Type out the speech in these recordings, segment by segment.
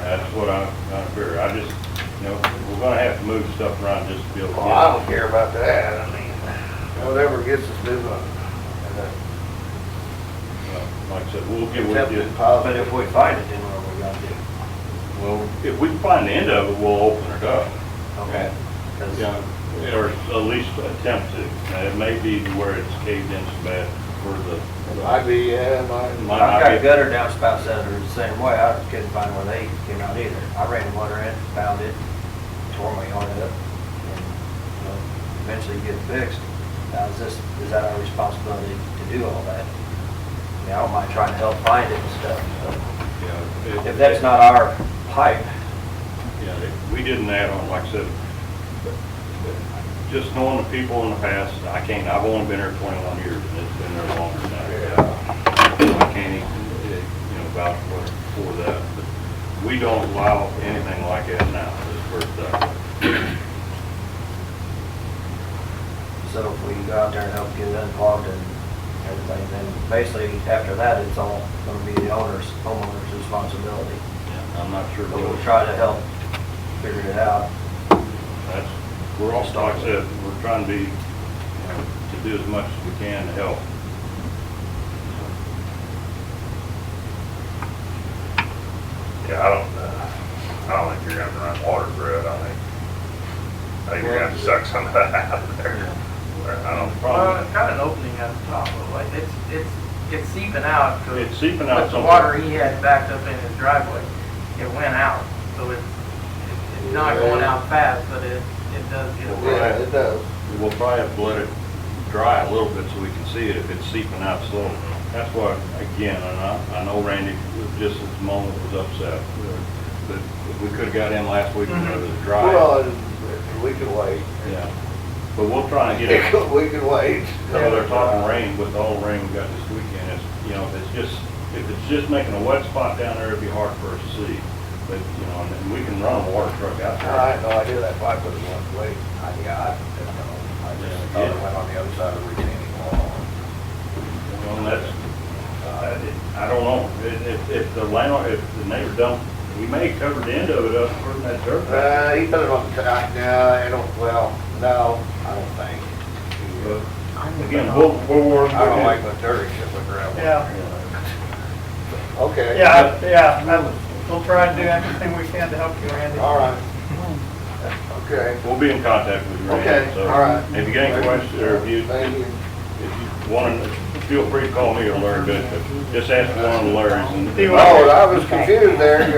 That's what I, I fear. I just, you know, we're gonna have to move stuff around just to be able to Well, Oh, I get. don't care about that, I mean, whatever gets us moving. and, uh, uh, Like I said, we'll get with Something you. positive. But if we find it, then what are we gonna do? Well, if we can find the end of it, we'll open it up. Okay. 'Cause- Yeah, Or at least attempt to. Now, It may be where it's caved in so bad where the. Might be, yeah, might. Might not I've got be- gutter downspouts that are the same way, I couldn't find where they came out either. I ran water in, found it, tore my yard up, and, you know, eventually get it fixed. Now, is this, is that our responsibility to do all that? I mean, I don't mind trying to help find it and stuff, Yeah, but it- if that's not our pipe, Yeah, they- we didn't add on, like I said, just knowing the people in the past, I can't, I've only been here twenty-one years, and it's been there longer than that. So I can't even, eh, you know, vouch for, for that, but we don't allow anything like that now, this first time. so if we go out there and help get it unclogged and everything, then basically after that, it's all gonna be the owner's, homeowner's responsibility. I'm not sure. But what- we'll try to help figure it out. That's, we're all, like I said, we're trying to be, you know, to do as much as we can to help. Yeah, I don't, uh, I don't think you're gonna run water through it, I think. I think you're gonna have to suck some of that out of there. I don't, Well, it's got an opening at the top of it, it's, it's, it's seeping out. 'cause It's seeping out With the somewhere. water he had backed up in his driveway, it went out, so it's, it's not going out fast, but it, it does get wet. Yeah, it does. We'll probably have to let it dry a little bit so we can see it if it's seeping out slowly. That's why, again, and I, I know Randy was just at the moment was upset, but we could've got in last week when it was dry. Well, and we could wait. Yeah, but we'll try and get it, so We could wait. they're talking rain, with all the rain we got this weekend, it's, you know, if it's just, if it's just making a wet spot down there, it'd be hard for us to see. But, you know, and then we can run a water truck out there. I had no idea that pipe was one way. I, yeah, I didn't know. I just thought it went on the other side of the retaining wall. Well, that's, uh, it- I don't know, if, if- if the landlord, if the neighbor don't, he may cover the end of it up for that survey. Uh, he put it on, I, no, I don't, well, no, I don't think. Again, we'll, we'll work. I don't like my dirt, except for gravel. Yeah. Okay. Yeah, I- yeah, I- we'll try and do everything we can to help you, Randy. All right. Okay. We'll be in contact with you. Randy, Okay, so all right. If you got any questions, or if you, Thank you. if you want to, feel free to call me or Larry Bishop, just ask one of the Larrys. He Oh, and- was- I was confused there,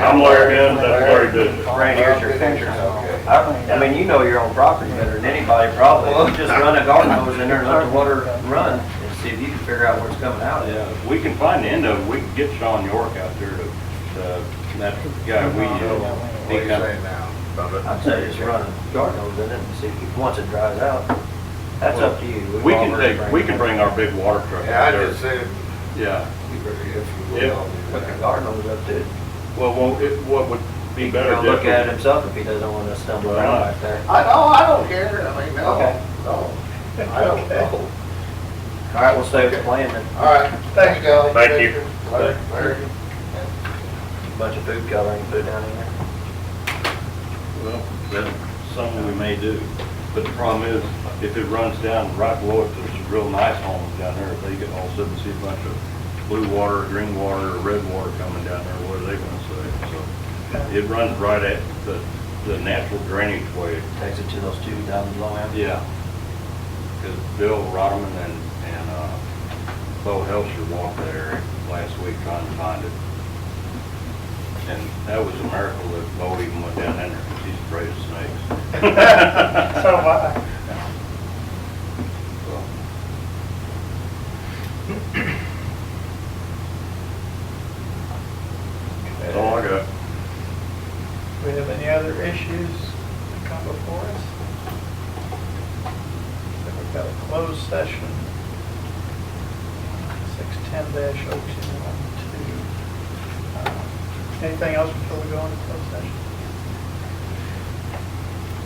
I'm Larry Bishop, that's Larry Bishop. Right, here's your picture. Okay. I I mean, you know your own property better than anybody probably. You Just run a garden hose in there and let the water run and see if you can figure out where it's coming out of. Yeah, if we can find the end of it, we can get Sean York out there to, to, that guy we, uh, What he are you kind of- saying now? I'd say just run a garden hose in it and see if, once it dries out, that's up to you. We've We can already take, we bring- can bring our big water truck Yeah, I out just there. said, Yeah. if you Yeah. will. Put the garden hose up too. Well, well, it, what would be He better? can look different- at it himself if he doesn't want to stumble around like that. I, no, I don't care, I mean, no, Okay. no, I don't know. All right, we'll stay with the plan then. All right, thank you, all Thank you. Larry, Larry. Bunch of food coloring put down in there. Well, that's something we may do, but the problem is, if it runs down right below it, there's some real nice homes down there, if they get all of a sudden see a bunch of blue water, green water, or red water coming down there, what are they gonna say? So, it runs right at the, the natural drainage way, Takes it to those two down below him. yeah. Because Bill Rodman and, and, uh, Bo Helser walked that area last week trying to find it. And that was a miracle that Bo even went down in there, because he's afraid of snakes. So, uh, So, That's all I got. we have any other issues that come before us? So we've got a closed session. Six ten dash oh two one two. Anything else before we go into closed session?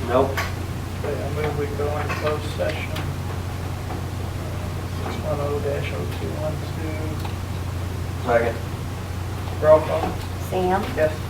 Nope. Okay, I move we go into closed session. Six one oh dash oh two one two. Second. Roll call. Sam, Yes.